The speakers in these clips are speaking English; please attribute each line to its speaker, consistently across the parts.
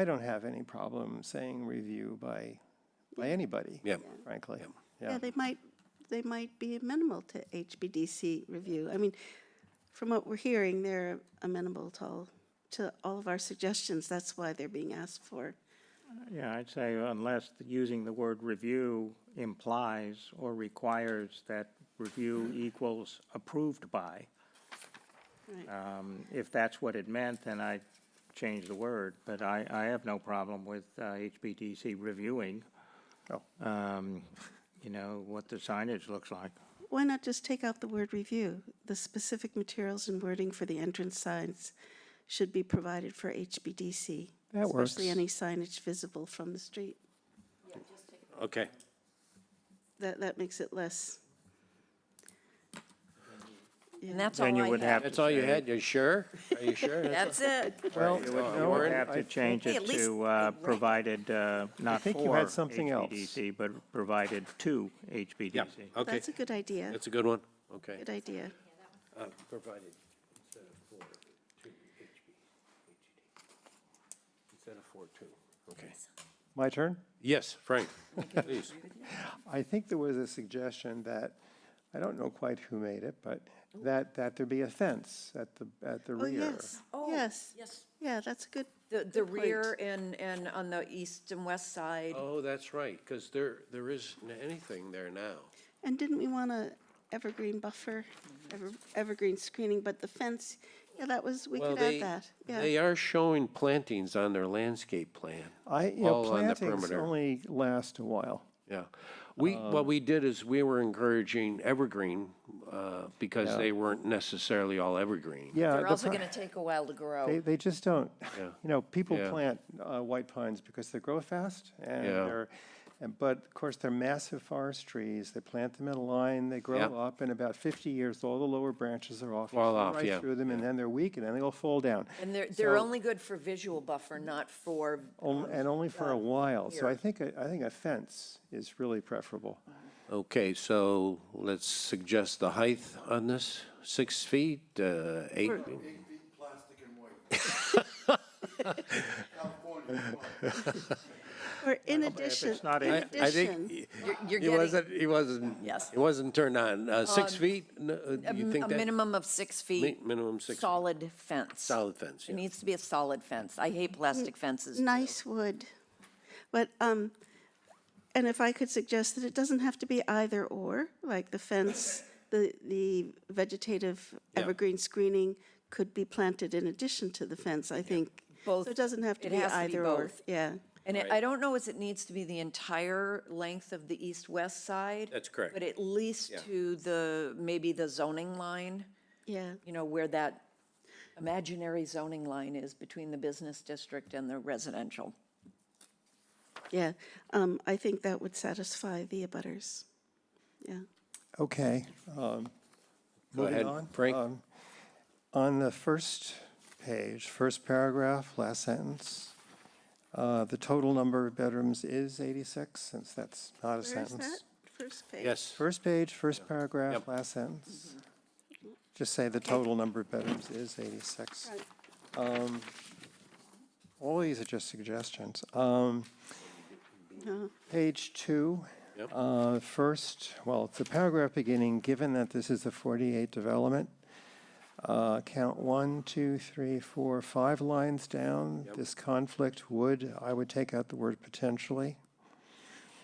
Speaker 1: I don't have any problem saying review by, by anybody,
Speaker 2: Yeah.
Speaker 1: frankly.
Speaker 3: Yeah,
Speaker 1: Yeah,
Speaker 3: they might, they might be amenable to HBDC review. I mean, from what we're hearing, they're amenable to all, to all of our suggestions. That's why they're being asked for.
Speaker 4: Yeah, I'd say unless the- using the word review implies or requires that review equals approved by.
Speaker 3: Right.
Speaker 4: Um, If that's what it meant, then I'd change the word, but I, I have no problem with uh, HBDC reviewing,
Speaker 1: Oh.
Speaker 4: um, you know, what the signage looks like.
Speaker 3: Why not just take out the word review? The specific materials and wording for the entrance signs should be provided for HBDC.
Speaker 1: That
Speaker 3: Especially
Speaker 1: works.
Speaker 3: any signage visible from the street.
Speaker 2: Okay.
Speaker 3: That, that makes it less.
Speaker 5: And that's all I
Speaker 4: Then
Speaker 5: have.
Speaker 4: you would have to
Speaker 2: That's all you
Speaker 4: say-
Speaker 2: had? You sure? Are you sure?
Speaker 5: That's it.
Speaker 1: Well,
Speaker 4: You would-
Speaker 1: no,
Speaker 4: you would
Speaker 1: I-
Speaker 4: have
Speaker 1: I
Speaker 4: to change
Speaker 5: Hey,
Speaker 4: it
Speaker 5: at least
Speaker 4: to uh,
Speaker 5: they rec-
Speaker 4: provided, uh, not
Speaker 1: think you had
Speaker 4: for
Speaker 1: something else.
Speaker 4: HBDC, but provided to
Speaker 2: Yeah,
Speaker 4: HBDC.
Speaker 2: okay.
Speaker 3: That's a good idea.
Speaker 2: That's a good one. Okay.
Speaker 3: Good idea.
Speaker 2: Uh, Provided instead of four, two, HB, Instead of four, two. Okay.
Speaker 1: My turn?
Speaker 2: Yes, Frank, please.
Speaker 1: I think there was a suggestion that, I don't know quite who made it, but that, that there be a fence at the, at the
Speaker 3: Oh,
Speaker 1: rear.
Speaker 3: yes, yes.
Speaker 5: Yes,
Speaker 3: Yeah, that's a good,
Speaker 5: the, the
Speaker 3: point.
Speaker 5: rear and, and on the east and west side.
Speaker 2: Oh, that's right, because there, there isn't anything there now.
Speaker 3: and didn't we want a evergreen buffer,
Speaker 5: Mm-hmm.
Speaker 3: ever- evergreen screening, but the fence, yeah, that was, we
Speaker 2: Well,
Speaker 3: could
Speaker 2: they
Speaker 3: add that,
Speaker 2: They
Speaker 3: yeah.
Speaker 2: are showing plantings on their landscape plan.
Speaker 1: I, you know,
Speaker 2: all on the
Speaker 1: plantings
Speaker 2: perimeter.
Speaker 1: only last a while.
Speaker 2: Yeah. We,
Speaker 1: Um,
Speaker 2: what we did is we were encouraging evergreen, uh, because they weren't necessarily all evergreen.
Speaker 1: Yeah.
Speaker 5: They're
Speaker 1: the
Speaker 5: also
Speaker 1: pro-
Speaker 5: going to take a while to
Speaker 1: They,
Speaker 5: grow.
Speaker 1: they just don't.
Speaker 2: Oh. Yeah.
Speaker 1: You know, people
Speaker 2: Yeah.
Speaker 1: plant uh, white pines because they grow fast and
Speaker 2: Yeah.
Speaker 1: they're, and, but of course, they're massive forest trees. They plant them in a line, they grow
Speaker 2: Yep.
Speaker 1: up, in about 50 years, all the lower branches are off. You
Speaker 2: Fall
Speaker 1: see
Speaker 2: off,
Speaker 1: right
Speaker 2: yeah,
Speaker 1: through them, and then they're weak, and then they all fall down.
Speaker 5: And they're, they're
Speaker 1: So-
Speaker 5: only good for visual buffer, not for,
Speaker 2: Oh,
Speaker 1: On- And only for a while. So
Speaker 5: here.
Speaker 1: I think, a- I think a fence is really preferable.
Speaker 2: Okay, so let's suggest the height on this, six feet, uh, eight?
Speaker 6: Eight feet plastic and white. California. come on.
Speaker 3: Or in
Speaker 4: If
Speaker 3: addition,
Speaker 4: it's not
Speaker 3: in
Speaker 4: a,
Speaker 2: I think
Speaker 3: addition,
Speaker 5: you're, you're
Speaker 2: He
Speaker 5: getting
Speaker 2: wasn't, he wasn't,
Speaker 5: Yes. Um,
Speaker 2: he wasn't turned on. Uh, Six feet, No, uh,
Speaker 5: a
Speaker 2: you
Speaker 5: m-
Speaker 2: think
Speaker 5: a
Speaker 2: that?
Speaker 5: minimum of six feet,
Speaker 2: Mi- Minimum six, feet.
Speaker 5: solid fence.
Speaker 2: solid fence,
Speaker 5: It
Speaker 2: yeah.
Speaker 5: needs to be a solid fence. I hate plastic fences.
Speaker 3: nice wood. But, um, and if I could suggest that it doesn't have to be either or, like the fence, the, the vegetative
Speaker 2: Yeah.
Speaker 3: evergreen screening could be planted in addition to the fence, I think.
Speaker 5: Both-
Speaker 3: So it doesn't have to
Speaker 5: it
Speaker 3: be
Speaker 5: has to be
Speaker 3: either or,
Speaker 5: both.
Speaker 3: yeah.
Speaker 5: And it- I don't know if it needs to be the entire length of the east-west side.
Speaker 2: That's correct.
Speaker 5: But at least
Speaker 2: Yeah.
Speaker 5: to the, maybe the zoning line.
Speaker 3: Yeah,
Speaker 5: you know, where that imaginary zoning line is between the business district and the residential.
Speaker 3: yeah. Um, I think that would satisfy the abutters. Yeah.
Speaker 1: Okay. um,
Speaker 2: Go
Speaker 1: Moving
Speaker 2: ahead,
Speaker 1: on,
Speaker 2: Frank.
Speaker 1: um, On the first page, first paragraph, last sentence, uh, the total number of bedrooms is 86, since that's not a
Speaker 3: Where is that?
Speaker 1: sentence.
Speaker 3: First page?
Speaker 2: Yes,
Speaker 1: First page, first paragraph,
Speaker 2: Yep.
Speaker 1: last sentence. Just say the total number of bedrooms is 86.
Speaker 3: Right.
Speaker 1: Um, All these are just suggestions. Um,
Speaker 3: No.
Speaker 1: Page two,
Speaker 2: Yep.
Speaker 1: uh, first, well, it's a paragraph beginning, given that this is a 48 development, uh, count one, two, three, four, five lines down. This conflict would, I would take out the word potentially.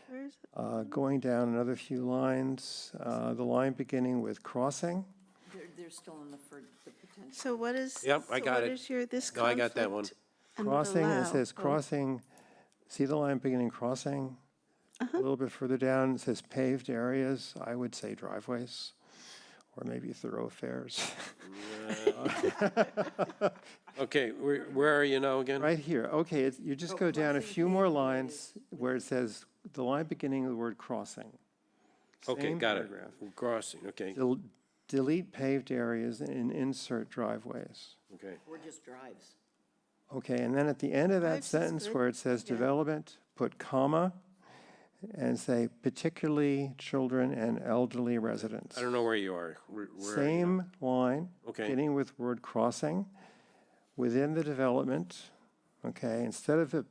Speaker 3: Where is it?
Speaker 1: Uh, Going down another few lines, uh, the line beginning with crossing.
Speaker 5: They're, they're still in the, for the potential.
Speaker 3: So what is?
Speaker 2: Yep, I
Speaker 3: so
Speaker 2: got
Speaker 3: what
Speaker 2: it.
Speaker 3: is your, this
Speaker 2: No, I got that one.
Speaker 3: conflict and would
Speaker 1: Crossing,
Speaker 3: allow?
Speaker 1: it says
Speaker 3: Oh,
Speaker 1: crossing, see the line beginning crossing? A little bit further down, it says paved areas, I would say driveways, or maybe thoroughfares.
Speaker 2: okay, where, where are you now again?
Speaker 1: Right here, okay, it's- you just go down a few more lines where it says, the line beginning of the word crossing.
Speaker 2: Okay,
Speaker 1: Same
Speaker 2: got it.
Speaker 1: paragraph.
Speaker 2: Crossing, okay,
Speaker 1: Del- Delete paved areas and insert driveways.
Speaker 2: okay.
Speaker 5: Or just drives.
Speaker 1: Okay, and then at the end of that
Speaker 3: Drives is
Speaker 1: sentence
Speaker 3: good,
Speaker 1: where it says development, put comma, and say particularly children and elderly residents.
Speaker 2: I don't know where you are. Where- where are you now?
Speaker 1: Same line.
Speaker 2: Okay.
Speaker 1: Beginning with word crossing, within the development, okay, instead of it